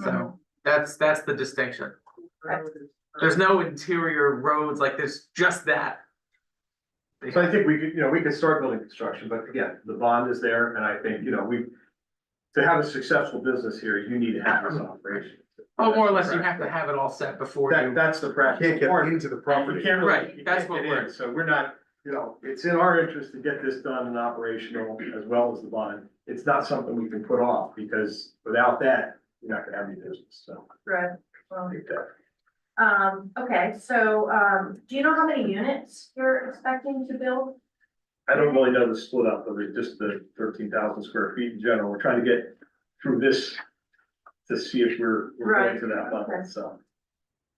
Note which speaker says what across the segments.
Speaker 1: Mm-hmm.
Speaker 2: So that's, that's the distinction. There's no interior roads, like there's just that.
Speaker 1: So I think we could, you know, we could start building construction, but again, the bond is there, and I think, you know, we. To have a successful business here, you need to have this operation.
Speaker 2: Oh, more or less you have to have it all set before
Speaker 1: That,
Speaker 2: you,
Speaker 1: that's the practical
Speaker 3: Can't get
Speaker 1: part.
Speaker 3: into the
Speaker 1: You
Speaker 3: property.
Speaker 1: can't really-
Speaker 2: Right,
Speaker 1: you
Speaker 2: that's
Speaker 1: can't
Speaker 2: what
Speaker 1: get
Speaker 2: we're-
Speaker 1: in, So we're not, you know, it's in our interest to get this done and operational as well as the bond. It's not something we can put off, because without that, you're not gonna have any business, so.
Speaker 4: Right,
Speaker 1: I
Speaker 4: well,
Speaker 1: think that-
Speaker 4: um, okay, so, um, do you know how many units you're expecting to build?
Speaker 1: I don't really know the split up of it, just the thirteen thousand square feet in general. We're trying to get through this. To see if we're, we're going to that level,
Speaker 4: Right,
Speaker 1: so.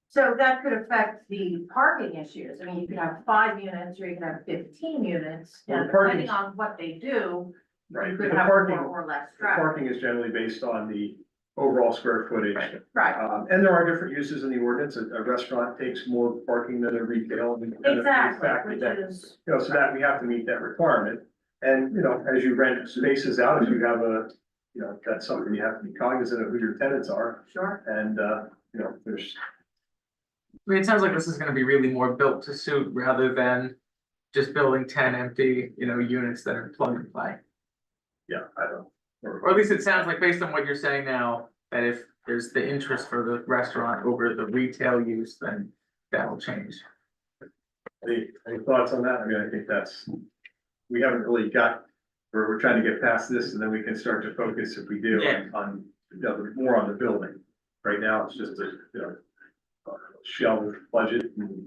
Speaker 4: So that could affect the parking issues, I mean, you could have five units, or you could have fifteen units,
Speaker 1: Well, the
Speaker 4: and
Speaker 1: parking-
Speaker 4: depending on what they do,
Speaker 1: Right,
Speaker 4: you
Speaker 1: the
Speaker 4: could have more
Speaker 1: parking,
Speaker 4: or less
Speaker 1: the
Speaker 4: traffic,
Speaker 1: parking is generally based on the overall square footage.
Speaker 4: right?
Speaker 1: Um, and there are different uses in the ordinance. A, a restaurant takes more parking than a retail. and- and a-
Speaker 4: Exactly,
Speaker 1: that-
Speaker 4: which is,
Speaker 1: You know, so that we have to meet that requirement. And, you know, as you rent spaces out, if you have a, you know, that's something you have to be cognizant of who your tenants are.
Speaker 4: sure,
Speaker 1: And, uh, you know, there's
Speaker 2: I mean, it sounds like this is gonna be really more built to suit rather than just building ten empty, you know, units that are plug and play.
Speaker 1: Yeah, I don't. or-
Speaker 2: Or at least it sounds like based on what you're saying now, that if there's the interest for the restaurant over the retail use, then that'll change.
Speaker 1: Any, any thoughts on that? I mean, I think that's, we haven't really got, we're, we're trying to get past this and then we can start to focus if we do
Speaker 2: Yeah.
Speaker 1: on, on, you know, the- more on the building. Right now, it's just a, you know, a shell of budget and,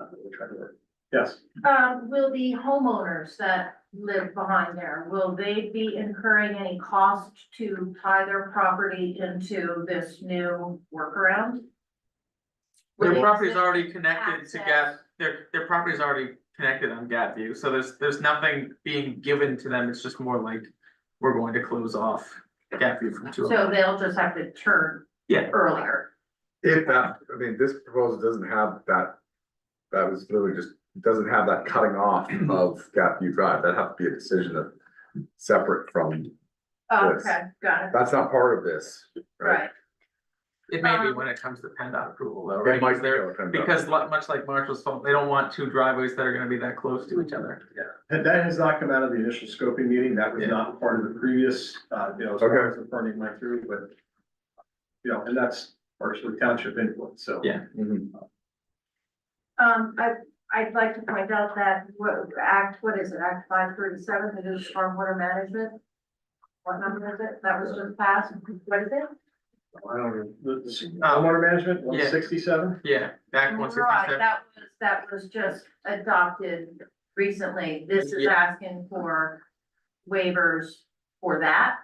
Speaker 1: uh, we're trying to work. Yes,
Speaker 4: um, will the homeowners that live behind there, will they be incurring any cost to tie their property into this new workaround?
Speaker 2: Their
Speaker 4: Will
Speaker 2: property's
Speaker 4: they-
Speaker 2: already connected to Gap,
Speaker 4: access.
Speaker 2: their, their property's already connected on Gap View, so there's, there's nothing being given to them, it's just more like. We're going to close off Gap View from two oh
Speaker 4: So
Speaker 2: one.
Speaker 4: they'll just have to turn.
Speaker 2: Yeah.
Speaker 4: Earlier,
Speaker 3: If that, I mean, this proposal doesn't have that, that was literally just, doesn't have that cutting off of Gap View Drive, that'd have to be a decision of. Separate from,
Speaker 4: Oh,
Speaker 3: Yes.
Speaker 4: okay, got it,
Speaker 3: that's not part of this, right?
Speaker 4: right,
Speaker 2: It may be
Speaker 4: Um,
Speaker 2: when it comes to PennDOT approval though, right?
Speaker 3: It might
Speaker 2: Because they're,
Speaker 3: go to-
Speaker 2: because lo- much like Marshall's fault, they don't want two driveways that are gonna be that close to each other.
Speaker 1: that, that has not come out of the initial scoping meeting. That was
Speaker 2: Yeah.
Speaker 1: not part of the previous, uh, you know, as far as the permitting went through, but. You know, and that's partially township influence, so.
Speaker 2: Yeah.
Speaker 3: Mhm.
Speaker 4: um, I, I'd like to point out that what, act, what is it, act five thirty-seven, it is stormwater management? What number is it, that was just passed, what is it?
Speaker 1: I don't know, the, the, uh, water management, one sixty-seven?
Speaker 2: Yeah, back one
Speaker 4: Right,
Speaker 2: sixty-seven,
Speaker 4: that was, that was just adopted recently, this is
Speaker 2: Yeah.
Speaker 4: asking for waivers for that.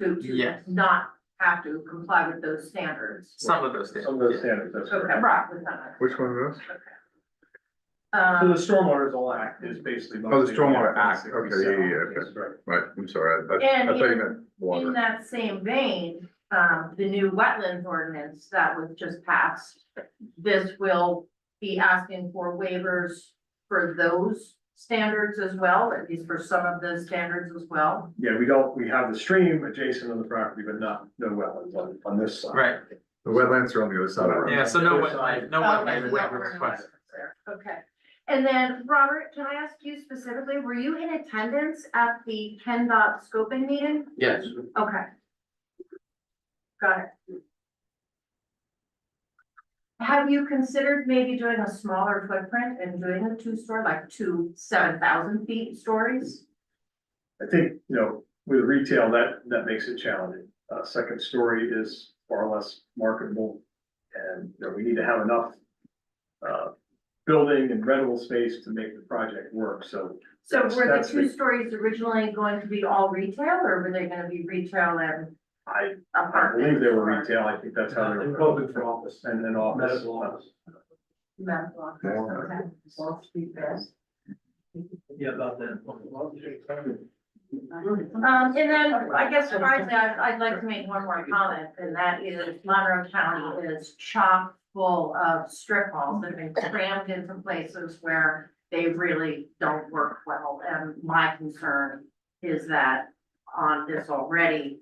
Speaker 4: To, to
Speaker 2: Yes.
Speaker 4: not have to comply with those standards,
Speaker 2: some of those did.
Speaker 1: Some of those
Speaker 2: yeah.
Speaker 1: standards, that's
Speaker 4: okay,
Speaker 1: correct.
Speaker 4: right, with that.
Speaker 3: Which one of those?
Speaker 1: So the
Speaker 4: Um,
Speaker 1: stormwater is all act is basically.
Speaker 3: Oh, the Stormwater Act. Okay, yeah, yeah, yeah, okay.
Speaker 1: That's right.
Speaker 3: Right, I'm sorry, I, I I
Speaker 4: And
Speaker 3: thought you
Speaker 4: in-
Speaker 3: meant
Speaker 4: in
Speaker 3: water.
Speaker 4: that same vein, um, the new wetlands ordinance that was just passed. This will be asking for waivers for those standards as well, at least for some of those standards as well.
Speaker 1: Yeah, we don't, we have the stream adjacent on the property, but not, no wetlands on, on this side.
Speaker 2: Right,
Speaker 3: The wetlands are on the other side of the road.
Speaker 2: yeah, so no
Speaker 1: Other
Speaker 2: wetland,
Speaker 1: side.
Speaker 2: no
Speaker 4: Oh, there's
Speaker 2: wetland
Speaker 4: no
Speaker 2: waiver
Speaker 4: wetlands
Speaker 2: request.
Speaker 4: there. Okay, and then, Robert, can I ask you specifically, were you in attendance at the PennDOT scoping meeting?
Speaker 2: Yes.
Speaker 4: Okay. Got it. Have you considered maybe doing a smaller footprint and doing a two-story, like two seven thousand feet stories?
Speaker 1: I think, you know, with retail, that, that makes it challenging. Uh, second story is far less marketable. And, you know, we need to have enough, uh, building and rentable space to make the project work, so.
Speaker 4: So
Speaker 1: Yes,
Speaker 4: were the
Speaker 1: that's the-
Speaker 4: two stories originally going to be all retail, or were they gonna be retail and
Speaker 1: I, I
Speaker 4: apartments?
Speaker 1: believe they were
Speaker 4: or
Speaker 1: retail, I think that's how they were.
Speaker 5: And public for office.
Speaker 1: And then office.
Speaker 5: Medical office.
Speaker 4: medical office?
Speaker 3: More.
Speaker 4: Okay.
Speaker 5: Yeah, about that.
Speaker 4: Um, and then, I guess finally, I'd, I'd like to make one more comment, and that is Monroe County is chock full of strip malls that have been crammed into places where they really don't work well, and my concern is that on this already